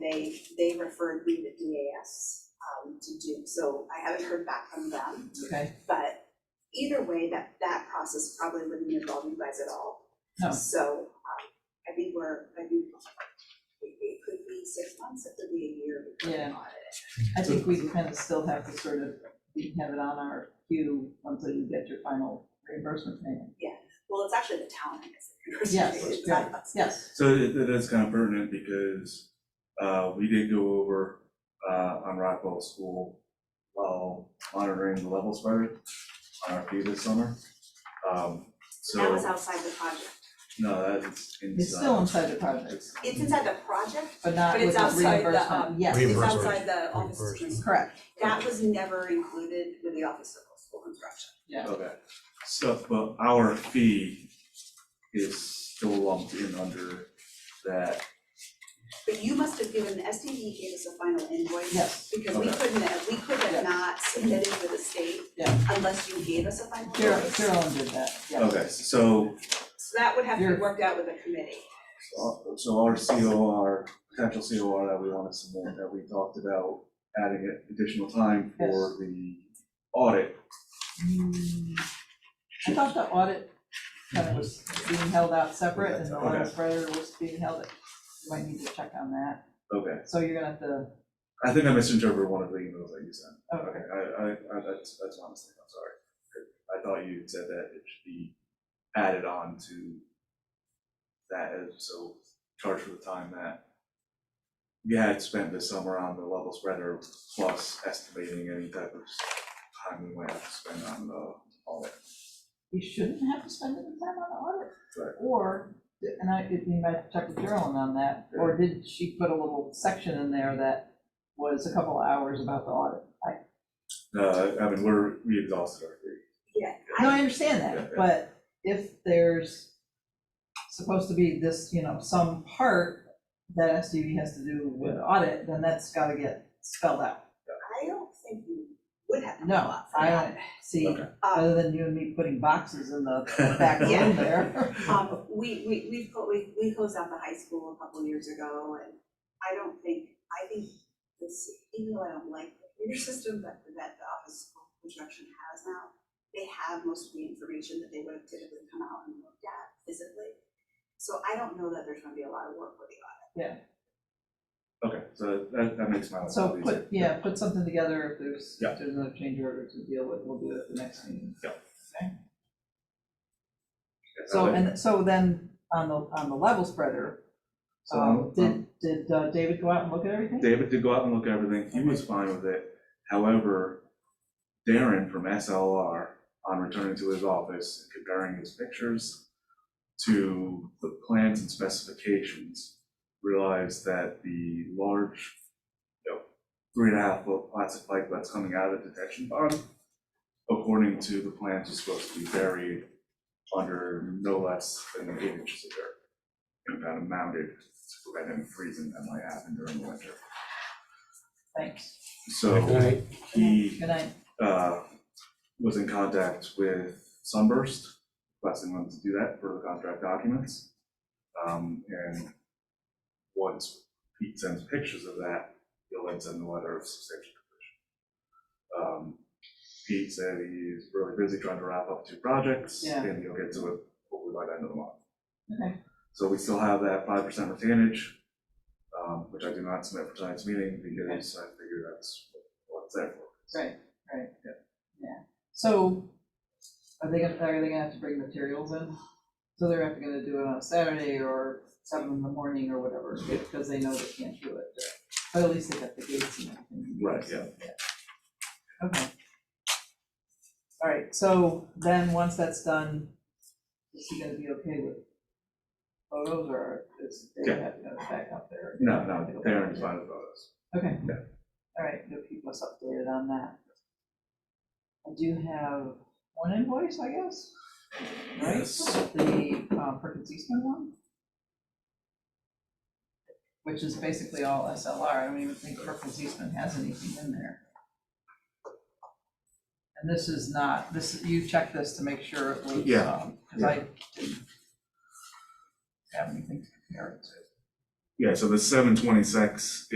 they referred me to EAS um, to do, so I haven't heard back from them. Okay. But either way, that, that process probably wouldn't involve you guys at all. No. So, um, I think we're, I think it, it could be six months, it could be a year. we could Yeah. audit it. I think we kind of still have to sort of, we have it on our queue until you get your final reimbursement payment. Well, it's actually the town, I guess. Yes, It's not us. Yes, So it, it is kind of pertinent because, uh, we did go over, uh, on Rockwell School while monitoring the level spreader on our fee this summer. Um, That was so, outside the project. no, that's inside. it's still inside the project, It's- It's inside the project, but not But with it's the outside the, um, reimbursement, yes, it's Reimbursement. outside the office. of School Instruction. correct, That was never included with the office of school instruction. yeah. Okay, so, but our fee is still lumped in under that, But you must have given, STD gave us a final invoice. Yes. Because we Okay. couldn't, have- we could Yeah. have not submitted to the state Yeah. unless you gave us a final Carol- invoice. Carolyn did that, yes. okay, so So that would have to You're- be worked out with the committee. So so our COR, potential COR that we want to submit, that we talked about adding additional time for the audit. Hmm, I thought the audit kind of was being held out separate and the letter Okay. spreader was being held, you might need to check on that. Okay, So you're gonna have to, oh, I think I misinterpreted one of the emails that you sent. okay, Okay, I, I, I, that's, that's my mistake, I'm sorry. I thought you said that it should be added on to that, as- so charge for the time that you had spent this summer on the level spreader plus estimating any type of time we might have to spend on the audit. you shouldn't have to spend any time on the audit. Right. Or, and I, you might have to check with Carolyn on that, or did she put a little section in there that was a couple hours about the audit? I, Uh, I mean, we're, we exhausted our fee. No, I understand Yeah, that, yeah. but if there's supposed to be this, you know, some part that SDV has to do with audit, then that's gotta get spelled out. I don't think you would have. No, I don't see, Okay. other than you and me putting boxes in the back room there. Um, we, we, we've, clo- we, we closed out the high school a couple years ago, and I don't think, I think this, even though I don't like the computer system that, that the Office of Construction has now, they have most of the information that they would have typically come out and looked at physically. So I don't know that there's gonna be a lot of work with the audit. Okay, so that, that makes my life a So lot easier. put, yeah, put something together if there's, Yeah. if there's another change order to deal with, we'll do it at the next meeting. So, and uh, so then, on the, on the level spreader, So, um, um, did, did uh, David go out and look at everything? David did go out and look at everything, he was fine with it. However, Darren from SLR, on returning to his office, and comparing his pictures to the plans and specifications, realized that the large, you know, three and a half foot plastic pipe that's coming out of the detection pond, according to the plans, was supposed to be buried under no less than eight inches of dirt. And kind of mounted to prevent him freezing that might happen during the winter. Thanks, So he good night. uh, was in contact with Sunburst, requesting them to do that for the contract documents. Um, And once Pete sends pictures of that, he'll then send the letter of substantial completion. Um, Pete said he's really busy trying to wrap up two projects, Yeah. and he'll get to it hopefully by the end of the month. Okay. So we still have that five percent retainage, um, which I do not submit for tonight's meeting because I figure that's what it's there for. Right, right. Yeah, so are they gonna, are they gonna have to bring materials in? So they're not gonna do it on a Saturday or seven in the morning or whatever, because they know they can't do it. But at least they got the gates and everything. Right, yeah. Okay. All right, so then, once that's done, is he gonna be okay with photos or is they Yeah. have to back up there? No, no, Darren's fine with all this. Okay. Yeah. All right, you'll keep us updated on that. I do have one invoice, I guess, right? Yes. The um, Perkins Eastman one? Which is basically all SLR, I don't even think Perkins Eastman has anything in there. And this is not, this, you checked this to make sure it was, Yeah, because I didn't have anything to compare it to. Yeah, so the seven twenty-six